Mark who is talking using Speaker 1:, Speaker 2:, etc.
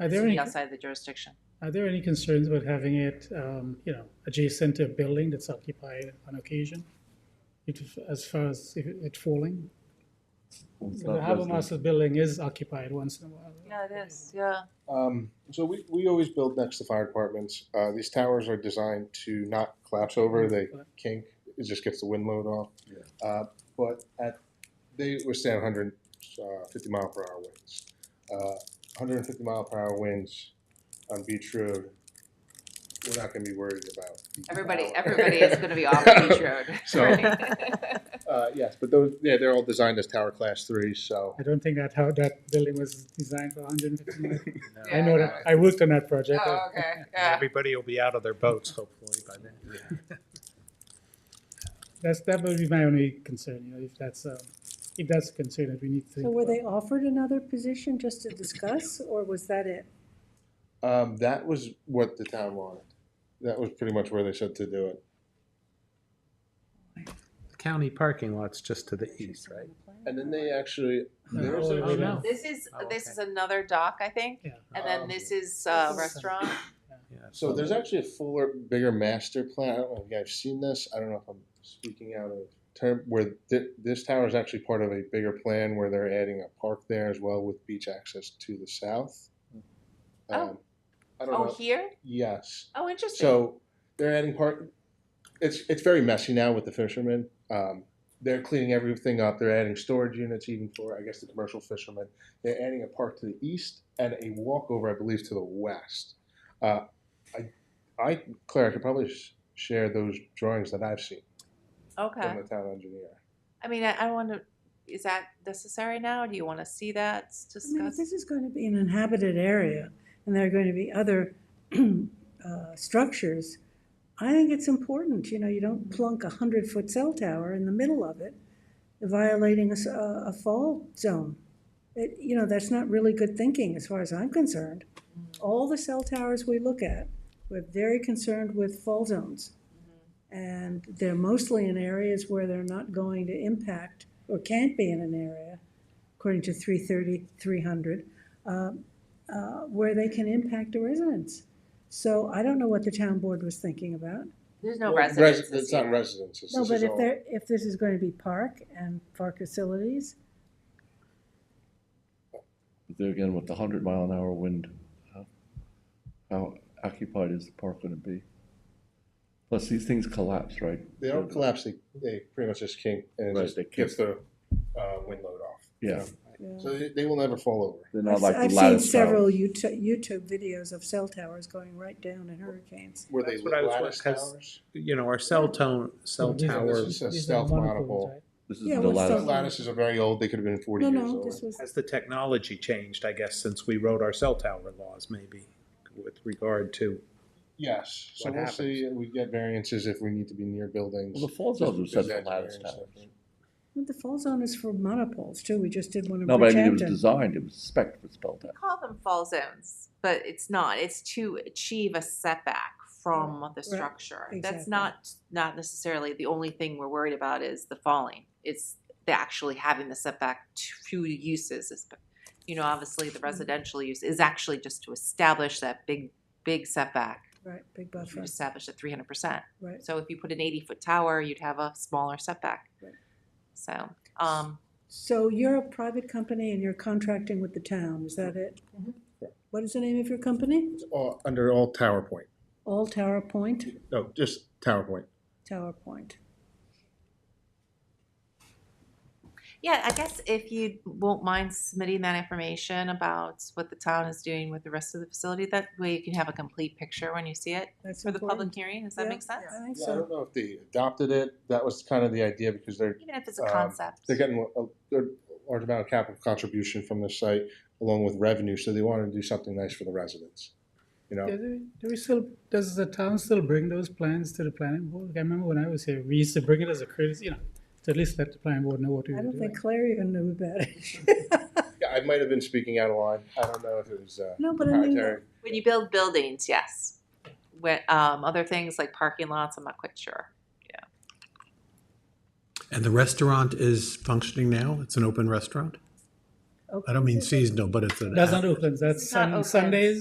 Speaker 1: Are
Speaker 2: This
Speaker 1: there
Speaker 2: would
Speaker 1: any,
Speaker 2: be outside the jurisdiction.
Speaker 1: are there any concerns about having it, um, you know, adjacent to a building that's occupied on occasion? It- As far as if it it falling?
Speaker 3: It's
Speaker 1: The
Speaker 3: not
Speaker 1: harbor
Speaker 3: residential.
Speaker 1: master's building is occupied once in a while.
Speaker 2: Yeah, it is, yeah.
Speaker 4: Um, so we, we always build next to fire departments. Uh, these towers are designed to not collapse over. They kink. It just gets the wind load off.
Speaker 3: Yeah.
Speaker 4: Uh, but at they withstand 150 mile per hour winds. Uh, 150 mile per hour winds on Beach Road. We're not going to be worried about.
Speaker 2: Everybody,
Speaker 4: Wow.
Speaker 2: everybody is gonna be off Beach Road.
Speaker 4: So-
Speaker 2: Right.
Speaker 4: Uh, yes, but those yeah, they're all designed as tower class three. So
Speaker 1: I don't think that how that building was designed for hundred and fifty miles. I
Speaker 2: Yeah.
Speaker 1: know that, I worked on that project.
Speaker 2: Oh, okay, yeah.
Speaker 5: Everybody will be out of their boats hopefully by then.
Speaker 1: That's, that would be my only concern, you know, if that's, um, if that's a concern that we need to think
Speaker 6: So were they
Speaker 1: about.
Speaker 6: offered another position just to discuss, or was that it?
Speaker 4: um, that was what the town wanted. That was pretty much where they said to do it.
Speaker 5: The County parking lot's just to the east, right?
Speaker 4: And then they actually
Speaker 1: No.
Speaker 4: there was a-
Speaker 5: Oh, no.
Speaker 2: This is,
Speaker 5: Oh,
Speaker 2: this
Speaker 5: okay.
Speaker 2: is another dock, I think,
Speaker 1: Yeah.
Speaker 2: and then
Speaker 4: Um,
Speaker 2: this is uh, restaurant.
Speaker 5: Yeah,
Speaker 4: So there's actually a fuller, bigger master plan. I don't know if you guys have seen this. I don't know if I'm speaking out of term where th- this tower is actually part of a bigger plan where they're adding a park there as well with beach access to the south. Um, I don't
Speaker 2: Oh,
Speaker 4: know.
Speaker 2: here?
Speaker 4: Yes.
Speaker 2: Oh, interesting.
Speaker 4: So they're adding part. It's it's very messy now with the fishermen. Um, they're cleaning everything up. They're adding storage units even for I guess the commercial fishermen. They're adding a park to the east and a walkover I believe to the west. Uh, I, I Claire, I could probably sh- share those drawings that I've seen
Speaker 2: Okay.
Speaker 4: from the town engineer.
Speaker 2: I mean, I, I want to, is that necessary now? Do you want to see that s-
Speaker 6: I mean, if
Speaker 2: discussed?
Speaker 6: this is going to be an inhabited area, and there are going to be other uh, structures, I think it's important, you know, you don't plunk a hundred-foot cell tower in the middle of it, violating a, s- a- a fall zone. It, you know, that's not really good thinking, as far as I'm concerned. All the cell towers we look at, we're very concerned with fall zones. And they're mostly in areas where they're not going to impact, or can't be in an area, according to 330, 300, uh, uh, where they can impact the residents. So I don't know what the town board was thinking about.
Speaker 2: There's no
Speaker 4: Well, res-
Speaker 2: residences
Speaker 4: It's not
Speaker 2: here.
Speaker 4: residences.
Speaker 6: No,
Speaker 4: This
Speaker 6: but
Speaker 4: is
Speaker 6: if
Speaker 4: all-
Speaker 6: there, if this is going to be park and park facilities,
Speaker 3: But There again, with the hundred mile an hour wind, how- how occupied is the park gonna be? Plus, these things collapse, right?
Speaker 4: They don't collapse. They, they pretty much just kink and it
Speaker 3: Right,
Speaker 4: just
Speaker 3: they kink.
Speaker 4: gets the uh, wind load off.
Speaker 3: Yeah,
Speaker 6: yeah.
Speaker 4: So they, they will never fall over.
Speaker 3: they're not
Speaker 6: I've
Speaker 3: like
Speaker 6: I've
Speaker 3: the
Speaker 6: seen
Speaker 3: lattice
Speaker 6: several
Speaker 3: towers.
Speaker 6: YouTube, YouTube videos of cell towers going right down in hurricanes.
Speaker 4: Were they
Speaker 5: That's what I was
Speaker 4: lattice
Speaker 5: wondering, 'cause-
Speaker 4: towers?
Speaker 5: You know, our cell tone, cell
Speaker 1: These are-
Speaker 5: tower,
Speaker 4: This is a
Speaker 1: these are
Speaker 4: stealth
Speaker 1: monopoles,
Speaker 4: monopole.
Speaker 1: right?
Speaker 3: This is
Speaker 6: Yeah,
Speaker 3: the
Speaker 6: what's
Speaker 3: lattice.
Speaker 6: the-
Speaker 4: lattices are very old. They could have been 40
Speaker 6: No,
Speaker 4: years
Speaker 6: no,
Speaker 4: old.
Speaker 6: this was,
Speaker 5: has the technology changed, I guess, since we wrote our cell tower laws maybe with regard to,
Speaker 4: yes. So
Speaker 5: What
Speaker 4: we'll
Speaker 5: happens?
Speaker 4: see. We get variances if we need to be near buildings.
Speaker 3: Well, the fall zones are
Speaker 4: Is
Speaker 3: set for
Speaker 4: that
Speaker 3: lattice
Speaker 4: variance
Speaker 3: towers.
Speaker 6: the fall zone is for monopoles too. We just did one in
Speaker 3: No, but I mean, it was
Speaker 6: Bridgehampton.
Speaker 3: designed, it was spec for spelled
Speaker 2: We
Speaker 3: out.
Speaker 2: call them fall zones, but it's not. It's to achieve a setback from the structure. That's
Speaker 6: exactly.
Speaker 2: not, not necessarily the only thing we're worried about is the falling. It's the actually having the setback to uses. is- You know, obviously,
Speaker 6: Mm-hmm.
Speaker 2: the residential use is actually just to establish that big, big setback.
Speaker 6: Right, big
Speaker 2: You
Speaker 6: buffer,
Speaker 2: establish at three hundred percent.
Speaker 6: right.
Speaker 2: So if you put an eighty-foot tower, you'd have a smaller setback.
Speaker 6: Right.
Speaker 2: So, um,
Speaker 6: So you're a private company and you're contracting with the town, is that it?
Speaker 2: Mhm.
Speaker 6: What is the name of your company?
Speaker 4: It's all, under all Tower Point.
Speaker 6: All Tower Point,
Speaker 4: No, just Tower Point.
Speaker 6: Tower Point.
Speaker 2: yeah, I guess if you won't mind submitting that information about what the town is doing with the rest of the facility, that way you can have a complete picture when you see it
Speaker 6: That's
Speaker 2: for the public
Speaker 6: important.
Speaker 2: hearing. Does that
Speaker 6: Yeah,
Speaker 2: make sense?
Speaker 6: I think
Speaker 4: Yeah, I
Speaker 6: so.
Speaker 4: don't know if they adopted it. That was kind of the idea because they're
Speaker 2: Even if it's a
Speaker 4: Um,
Speaker 2: concept.
Speaker 4: they're getting a, a large amount of capital contribution from the site along with revenue. So they wanted to do something nice for the residents. You know,
Speaker 1: Yeah, Do we- do we still, does the town still bring those plans to the planning board? I remember when I was here, we used to bring it as a courtesy, you know, to at least let the planning board know what we
Speaker 6: I
Speaker 1: were
Speaker 6: don't
Speaker 1: doing.
Speaker 6: think Claire even knew about it.
Speaker 4: yeah, I might have been speaking out of line. I don't know if it was uh,
Speaker 6: No, but I mean,
Speaker 4: proprietary.
Speaker 2: When you build buildings, yes. When, um, other things like parking lots, I'm not quite sure.
Speaker 7: And the restaurant is functioning now? It's an open restaurant?
Speaker 8: Oakland
Speaker 9: I don't mean
Speaker 8: is-
Speaker 9: seasonal, but it's an.
Speaker 7: That's not Oakland, that's
Speaker 1: not
Speaker 7: Sun-
Speaker 1: Oakland.
Speaker 7: Sundays